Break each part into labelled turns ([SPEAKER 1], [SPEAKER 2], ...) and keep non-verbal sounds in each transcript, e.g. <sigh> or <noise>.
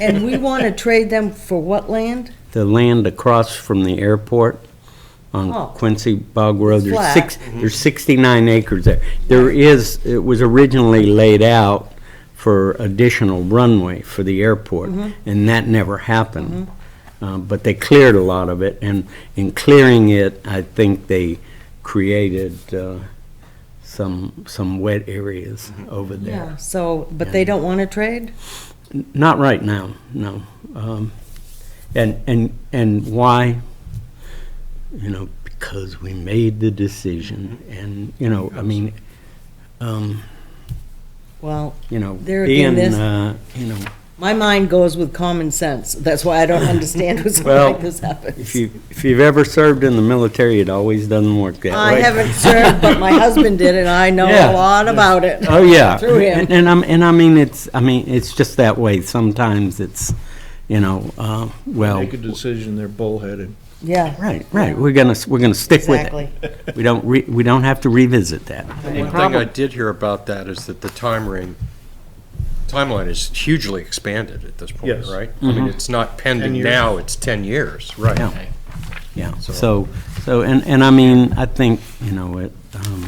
[SPEAKER 1] And we want to trade them for what land?
[SPEAKER 2] The land across from the airport
[SPEAKER 1] Oh.
[SPEAKER 2] on Quincy Bog Road, there's
[SPEAKER 1] Flat. Mm-hmm.
[SPEAKER 2] six, there's 69 acres there. There is, it was originally laid out for additional runway for the airport,
[SPEAKER 1] Mm-hmm.
[SPEAKER 2] and that never happened. Uh, But they cleared a lot of it, and in clearing it, I think they created uh, some, some wet areas
[SPEAKER 1] Mm-hmm.
[SPEAKER 2] over there.
[SPEAKER 1] So, but they don't want to trade?
[SPEAKER 2] Not right now, no. Um, And, and, and why? You know, because we made the decision and, you know, I mean, um,
[SPEAKER 1] Well,
[SPEAKER 2] you know,
[SPEAKER 1] There again,
[SPEAKER 2] being,
[SPEAKER 1] this-
[SPEAKER 2] uh, you know,
[SPEAKER 1] my mind goes with common sense. That's why
[SPEAKER 2] <laughs>
[SPEAKER 1] I don't understand when something
[SPEAKER 2] Well,
[SPEAKER 1] like this happens.
[SPEAKER 2] if you, if you've ever served in the military, it always doesn't work that way.
[SPEAKER 1] I haven't served, but my husband did, and I know a
[SPEAKER 2] Yeah.
[SPEAKER 1] lot about it.
[SPEAKER 2] Oh,
[SPEAKER 1] <laughs>
[SPEAKER 2] yeah.
[SPEAKER 1] Through him.
[SPEAKER 2] And, and I'm, and I mean, it's, I mean, it's just that way. Sometimes it's, you know, uh, well,
[SPEAKER 3] Make a decision, they're
[SPEAKER 2] <clears throat>
[SPEAKER 3] bullheaded.
[SPEAKER 1] Yeah.
[SPEAKER 2] right, right, we're gonna, s- we're gonna stick with it.
[SPEAKER 1] Exactly.
[SPEAKER 2] We don't, re- we don't have to revisit that.
[SPEAKER 4] One thing I did hear about that is that the time ring, timeline is hugely expanded at this point,
[SPEAKER 3] Yes.
[SPEAKER 4] right? I
[SPEAKER 1] Mm-hmm.
[SPEAKER 4] mean, it's not pending
[SPEAKER 3] years.
[SPEAKER 4] now, it's 10 years,
[SPEAKER 2] Yeah.
[SPEAKER 4] right?
[SPEAKER 2] Yeah,
[SPEAKER 4] So-
[SPEAKER 2] so, so, and, and I mean, I think, you know, it, um,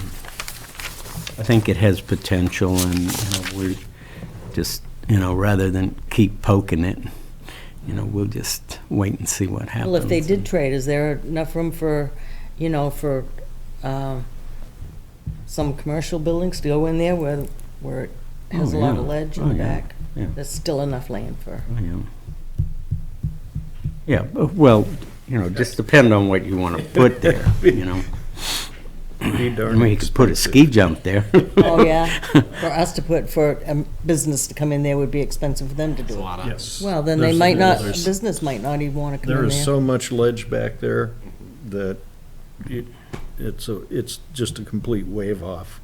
[SPEAKER 2] I think it has potential and, you know, we're just, you know, rather than keep poking it, you know, we'll just wait and see what happens.
[SPEAKER 1] Well, if they did trade, is there enough room for, you know, for um, some commercial buildings to go in there where, where it has a
[SPEAKER 2] Oh,
[SPEAKER 1] lot
[SPEAKER 2] yeah.
[SPEAKER 1] of ledge
[SPEAKER 2] Oh,
[SPEAKER 1] in the
[SPEAKER 2] yeah.
[SPEAKER 1] back?
[SPEAKER 2] Yeah.
[SPEAKER 1] There's still enough land for,
[SPEAKER 2] Yeah. Yeah, bu- well, you know, just depend on what you want to put there, you know.
[SPEAKER 3] Pretty
[SPEAKER 2] I
[SPEAKER 3] darn
[SPEAKER 2] mean, you could put a ski jump there.
[SPEAKER 1] oh,
[SPEAKER 2] <laughs>
[SPEAKER 1] yeah, for us to put, for a business to come in there would be expensive for them to do it.
[SPEAKER 3] Yes.
[SPEAKER 1] Well, then they
[SPEAKER 3] There's-
[SPEAKER 1] might not, a
[SPEAKER 3] there's-
[SPEAKER 1] business might not even want to come
[SPEAKER 3] There
[SPEAKER 1] in
[SPEAKER 3] is
[SPEAKER 1] there.
[SPEAKER 3] so much ledge back there that it, it's a, it's just a complete wave off.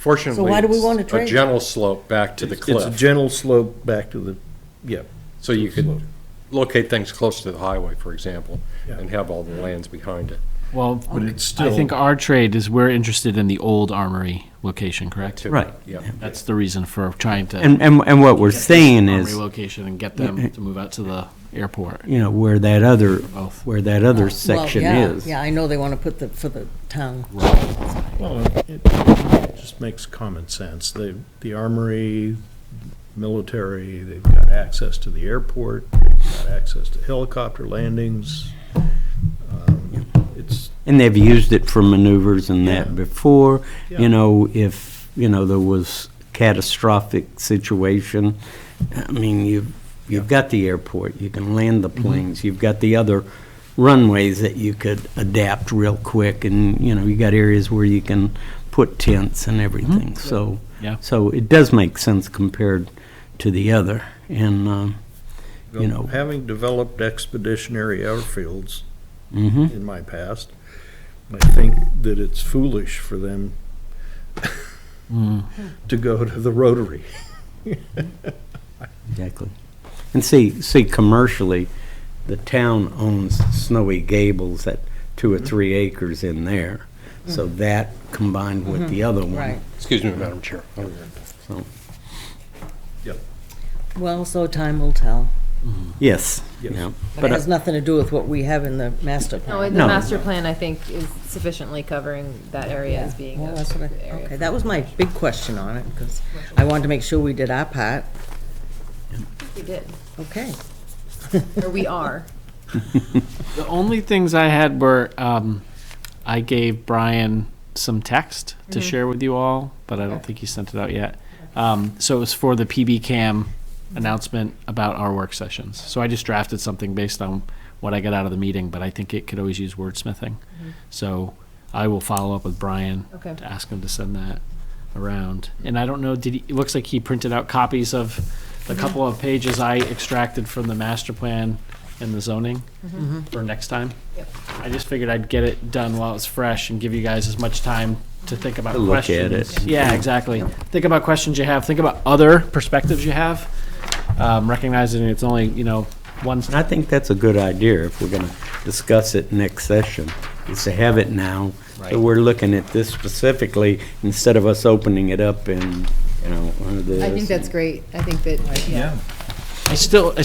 [SPEAKER 4] Fortunately.
[SPEAKER 1] So why do we
[SPEAKER 4] it's
[SPEAKER 1] wanna trade?
[SPEAKER 4] A gentle slope back to the
[SPEAKER 3] It's a
[SPEAKER 4] cliff,
[SPEAKER 3] gentle slope back to the, yeah.
[SPEAKER 4] so you
[SPEAKER 3] slope.
[SPEAKER 4] could locate things close to the highway, for example,
[SPEAKER 3] Yeah.
[SPEAKER 4] and have all the lands behind it.
[SPEAKER 5] Well,
[SPEAKER 3] But it's
[SPEAKER 5] I
[SPEAKER 3] still,
[SPEAKER 5] think our trade is we're interested in the old armory location, correct?
[SPEAKER 4] too.
[SPEAKER 2] Right.
[SPEAKER 4] Yeah.
[SPEAKER 5] That's the reason for trying to.
[SPEAKER 2] And, and, and what we're
[SPEAKER 5] get this
[SPEAKER 2] saying
[SPEAKER 5] Armory
[SPEAKER 2] is,
[SPEAKER 5] location and get them to move out to the airport,
[SPEAKER 2] you know, where that other,
[SPEAKER 5] both.
[SPEAKER 2] where that other
[SPEAKER 1] Well,
[SPEAKER 2] section
[SPEAKER 1] yeah,
[SPEAKER 2] is.
[SPEAKER 1] Yeah, I know they want to put the, for the town.
[SPEAKER 3] well, it just makes common sense. The, the armory, military, they've got access to the airport, they've got access to helicopter landings. Um, It's,
[SPEAKER 2] And they've used it for maneuvers and
[SPEAKER 3] Yeah.
[SPEAKER 2] that before.
[SPEAKER 3] Yeah.
[SPEAKER 2] You know, if, you know, there was catastrophic situation, I mean, you've, you've got the airport, you can land
[SPEAKER 3] Mm-hmm.
[SPEAKER 2] the planes, you've got the other runways that you could adapt real quick, and, you know, you got areas where you can put tents
[SPEAKER 3] Mm-hmm.
[SPEAKER 2] and everything, so.
[SPEAKER 5] Yeah.
[SPEAKER 2] So it does make sense compared to the other, and, um, you know.
[SPEAKER 3] Having developed expeditionary airfields
[SPEAKER 2] mhm.
[SPEAKER 3] in my past, I think that it's foolish for them
[SPEAKER 2] Hmm.
[SPEAKER 3] <laughs> to go to the Rotary.
[SPEAKER 2] Exactly. And see, see, commercially, the town owns Snowy Gables at two or three acres in there. So that combined with the other one.
[SPEAKER 1] Right.
[SPEAKER 4] Excuse me, Madam Chair.
[SPEAKER 2] So,
[SPEAKER 1] Well, so time will tell.
[SPEAKER 2] yes.
[SPEAKER 3] Yes.
[SPEAKER 2] yeah.
[SPEAKER 1] But
[SPEAKER 2] But,
[SPEAKER 1] it
[SPEAKER 2] uh,
[SPEAKER 1] has nothing to do with what we have in the master
[SPEAKER 6] No,
[SPEAKER 1] plan.
[SPEAKER 6] the
[SPEAKER 2] No.
[SPEAKER 6] master plan, I think, is sufficiently covering that area as being
[SPEAKER 1] Well,
[SPEAKER 6] a
[SPEAKER 1] that's what I,
[SPEAKER 6] area.
[SPEAKER 1] okay, that was my big question on it, because I wanted to make sure we did our part.
[SPEAKER 6] We did,
[SPEAKER 1] Okay.
[SPEAKER 6] or we are.
[SPEAKER 5] The only things I had were um, I gave Brian some text to share with you all, but I don't think he sent it out yet. Um, so it was for the PB Cam announcement about our work sessions. So I just drafted something based on what I got out of the meeting, but I think it could always use wordsmithing. So I will follow up with Brian
[SPEAKER 6] Okay.
[SPEAKER 5] to ask him to send that around. And I don't know, did he, it looks like he printed out copies of the couple of pages I extracted from the master plan and the zoning for next time.
[SPEAKER 6] Yep.
[SPEAKER 5] I just figured I'd get it done while it's fresh and give you guys as much time to think about
[SPEAKER 2] To look at
[SPEAKER 5] questions.
[SPEAKER 2] it.
[SPEAKER 5] Yeah, exactly. Think about questions you have, think about other perspectives you have, um, recognizing it's only, you know, one,
[SPEAKER 2] I think that's a good idea if we're going to discuss it next session, is to have it now.
[SPEAKER 5] Right.
[SPEAKER 2] So we're looking at this specifically instead of us opening it up and, you know, uh, this.
[SPEAKER 6] I think that's great. I think that, yeah.
[SPEAKER 5] I still, I